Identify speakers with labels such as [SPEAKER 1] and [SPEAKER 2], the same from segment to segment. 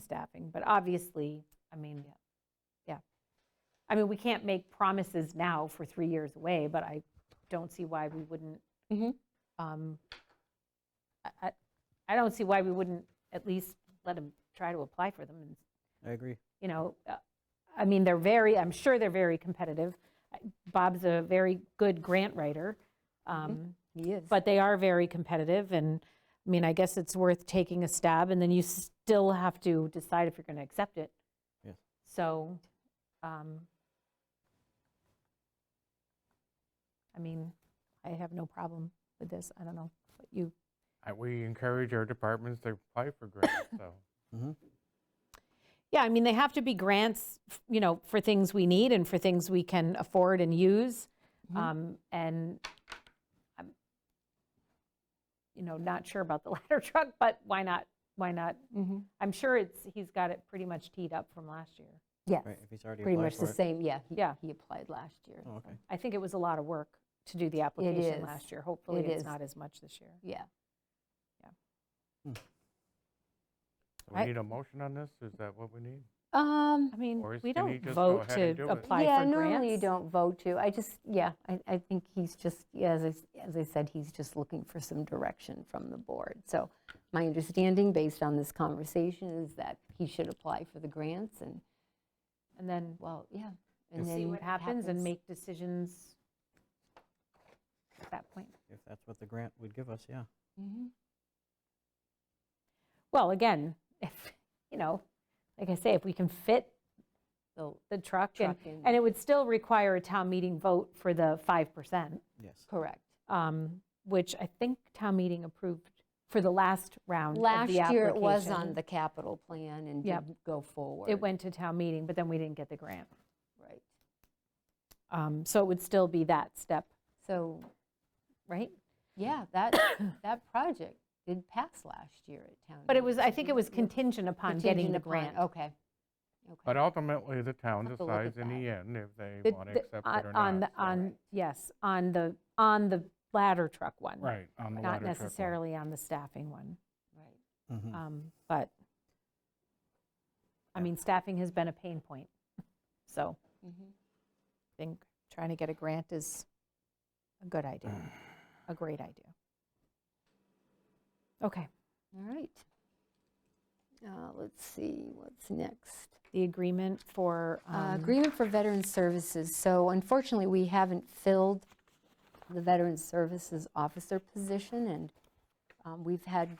[SPEAKER 1] staffing, but obviously, I mean, yeah. I mean, we can't make promises now for three years away, but I don't see why we wouldn't,
[SPEAKER 2] Mhm.
[SPEAKER 1] um, I, I- I don't see why we wouldn't at least let them try to apply for them and
[SPEAKER 3] I agree.
[SPEAKER 1] you know, uh, I mean, they're very, I'm sure they're very competitive. Bob's a very good grant writer, um,
[SPEAKER 2] He is.
[SPEAKER 1] but they are very competitive, and, I mean, I guess it's worth taking a stab, and then you still have to decide if you're going to accept it.
[SPEAKER 3] Yeah.
[SPEAKER 1] So, um, I mean, I have no problem with this, I don't know, what you,
[SPEAKER 4] Uh, We encourage our departments to apply for grants, so.
[SPEAKER 1] yeah, I mean, they have to be grants, f- you know, for things we need and for things we can afford and use.
[SPEAKER 2] Mhm.
[SPEAKER 1] Um, And I'm, you know, not sure about the ladder truck, but why not, why not?
[SPEAKER 2] Mhm.
[SPEAKER 1] I'm sure it's, he's got it pretty much teed up from last year.
[SPEAKER 2] Yes,
[SPEAKER 3] Right, if he's already
[SPEAKER 2] pretty
[SPEAKER 3] applied
[SPEAKER 2] much
[SPEAKER 3] for
[SPEAKER 2] the
[SPEAKER 3] it.
[SPEAKER 2] same, yeah. he-
[SPEAKER 1] Yeah.
[SPEAKER 2] He applied last year.
[SPEAKER 3] Oh,
[SPEAKER 2] so,
[SPEAKER 3] okay.
[SPEAKER 1] I think it was a lot of work to do the application
[SPEAKER 2] is.
[SPEAKER 1] last year. Hopefully,
[SPEAKER 2] It
[SPEAKER 1] it's
[SPEAKER 2] is.
[SPEAKER 1] not as much this year.
[SPEAKER 2] Yeah.
[SPEAKER 4] We
[SPEAKER 1] I-
[SPEAKER 4] need a motion on this? Is that what we need?
[SPEAKER 2] Um,
[SPEAKER 1] I mean,
[SPEAKER 4] Or is-
[SPEAKER 1] we
[SPEAKER 4] can he
[SPEAKER 1] don't
[SPEAKER 4] just go
[SPEAKER 1] vote
[SPEAKER 4] ahead and
[SPEAKER 1] to
[SPEAKER 4] do it?
[SPEAKER 1] apply for grants.
[SPEAKER 2] Yeah, normally you don't vote to. I just, yeah, I, I think he's just, yeah, as I, s- as I said, he's just looking for some direction from the board. So my understanding, based on this conversation, is that he should apply for the grants and,
[SPEAKER 1] And then
[SPEAKER 2] well, yeah.
[SPEAKER 1] we'll
[SPEAKER 2] and
[SPEAKER 1] see
[SPEAKER 2] then
[SPEAKER 1] what
[SPEAKER 2] it
[SPEAKER 1] happens and make decisions at that point.
[SPEAKER 3] If that's what the grant would give us, yeah.
[SPEAKER 2] Mhm.
[SPEAKER 1] Well, again, if, you know, like I say, if we can fit
[SPEAKER 2] The
[SPEAKER 1] the truck and,
[SPEAKER 2] truck in.
[SPEAKER 1] and it would still require a town meeting vote for the 5%,
[SPEAKER 3] Yes.
[SPEAKER 2] Correct.
[SPEAKER 1] um, which I think town meeting approved for the last round of the
[SPEAKER 2] Last
[SPEAKER 1] application.
[SPEAKER 2] year, it was on the capital plan and
[SPEAKER 1] Yep.
[SPEAKER 2] didn't go forward.
[SPEAKER 1] It went to town meeting, but then we didn't get the grant.
[SPEAKER 2] Right.
[SPEAKER 1] Um, So it would still be that step,
[SPEAKER 2] So,
[SPEAKER 1] right?
[SPEAKER 2] yeah, that, that project did pass last year at town.
[SPEAKER 1] But it
[SPEAKER 2] meeting,
[SPEAKER 1] was,
[SPEAKER 2] so
[SPEAKER 1] I think
[SPEAKER 2] we
[SPEAKER 1] it was
[SPEAKER 2] were
[SPEAKER 1] contingent upon getting the
[SPEAKER 2] contingent upon-
[SPEAKER 1] grant.
[SPEAKER 2] Okay. Okay.
[SPEAKER 4] But uh, ultimately, the town
[SPEAKER 2] Have to look at
[SPEAKER 4] decides in the end if they
[SPEAKER 1] The-
[SPEAKER 4] want to
[SPEAKER 1] the-
[SPEAKER 4] accept
[SPEAKER 1] on-
[SPEAKER 4] it or
[SPEAKER 1] on
[SPEAKER 4] not.
[SPEAKER 1] the-
[SPEAKER 4] so-
[SPEAKER 1] On, yes, on the, on the ladder truck one.
[SPEAKER 4] Right, on the
[SPEAKER 1] Not
[SPEAKER 4] ladder truck one. Hmm.
[SPEAKER 1] necessarily on the staffing one.
[SPEAKER 2] Right. Ah,
[SPEAKER 3] Mhm.
[SPEAKER 1] Um, But, I
[SPEAKER 4] Yeah.
[SPEAKER 1] mean, staffing has been a pain point, so
[SPEAKER 2] Mhm.
[SPEAKER 1] I think trying to get a grant is a good
[SPEAKER 3] Mm.
[SPEAKER 1] idea, a great idea. Okay,
[SPEAKER 2] Mm-hmm. All right. Uh, Let's see, what's next?
[SPEAKER 1] the agreement for,
[SPEAKER 2] Uh,
[SPEAKER 1] um,
[SPEAKER 2] Agreement for Veteran Services. So unfortunately, we haven't filled the Veteran Services Officer position, and um, we've had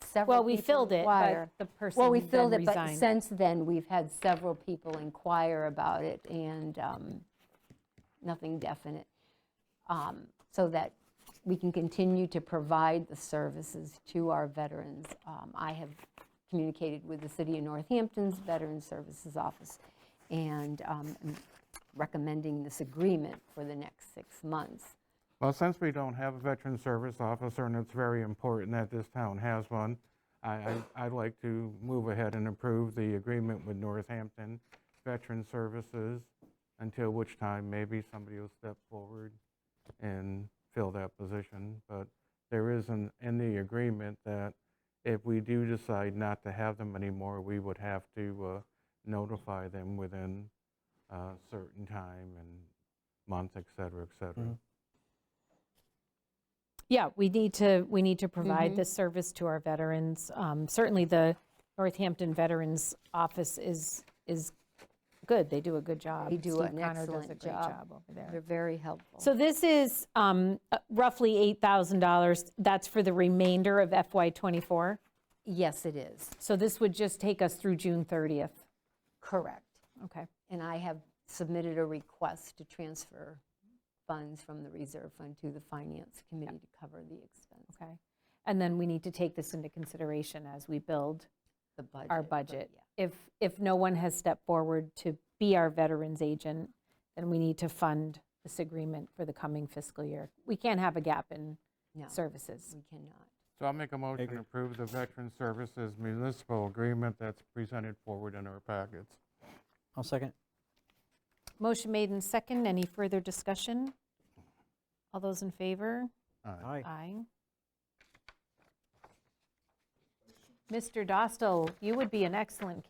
[SPEAKER 2] several
[SPEAKER 1] well, we
[SPEAKER 2] people
[SPEAKER 1] filled it, but
[SPEAKER 2] inquire.
[SPEAKER 1] the person
[SPEAKER 2] Well, we
[SPEAKER 1] then
[SPEAKER 2] filled it, but
[SPEAKER 1] resigned.
[SPEAKER 2] since then, we've had several people inquire about it, and um, nothing definite. Um, So that we can continue to provide the services to our veterans. Um, I have communicated with the City of Northampton's Veteran Services Office and um, am recommending this agreement for the next six months.
[SPEAKER 4] Well, since we don't have a veteran service officer, and it's very important that this town has one, I, I- I'd like to move ahead and approve the agreement with Northampton Veteran Services, until which time maybe somebody will step forward and fill that position. But there is an, in the agreement that if we do decide not to have them anymore, we would have to uh, notify them within a certain time and month, et cetera, et cetera.
[SPEAKER 3] Mhm.
[SPEAKER 1] Yeah, we need to, we need to provide
[SPEAKER 2] Mhm.
[SPEAKER 1] this service to our veterans. Um, Certainly, the Northampton Veterans Office is, is good. They do a good job.
[SPEAKER 2] They do
[SPEAKER 1] Steve
[SPEAKER 2] an
[SPEAKER 1] Connor does a
[SPEAKER 2] excellent
[SPEAKER 1] great
[SPEAKER 2] job.
[SPEAKER 1] over there.
[SPEAKER 2] They're very helpful.
[SPEAKER 1] So this is um, uh, roughly $8,000. That's for the remainder of FY '24.
[SPEAKER 2] Yes, it is.
[SPEAKER 1] So this would just take us through June 30th.
[SPEAKER 2] Correct.
[SPEAKER 1] Okay.
[SPEAKER 2] And I have submitted a request to transfer funds from the reserve fund to the finance committee to cover the expense,
[SPEAKER 1] Okay. And then we need to take this into consideration as we build
[SPEAKER 2] the budget.
[SPEAKER 1] our
[SPEAKER 2] but
[SPEAKER 1] budget.
[SPEAKER 2] yeah.
[SPEAKER 1] If, if no one has stepped forward to be our veterans agent, then we need to fund this agreement for the coming fiscal year. We can't have a gap in
[SPEAKER 2] No,
[SPEAKER 1] services.
[SPEAKER 2] we cannot.
[SPEAKER 4] So I'll make a motion
[SPEAKER 3] agree.
[SPEAKER 4] to approve the Veteran Services Municipal Agreement that's presented forward in our packets.
[SPEAKER 3] I'll second.
[SPEAKER 1] Motion made in second. Any further discussion? All those in favor?
[SPEAKER 4] Aye.
[SPEAKER 3] Aye.
[SPEAKER 1] Aye. Mr. Dostal, you would be an excellent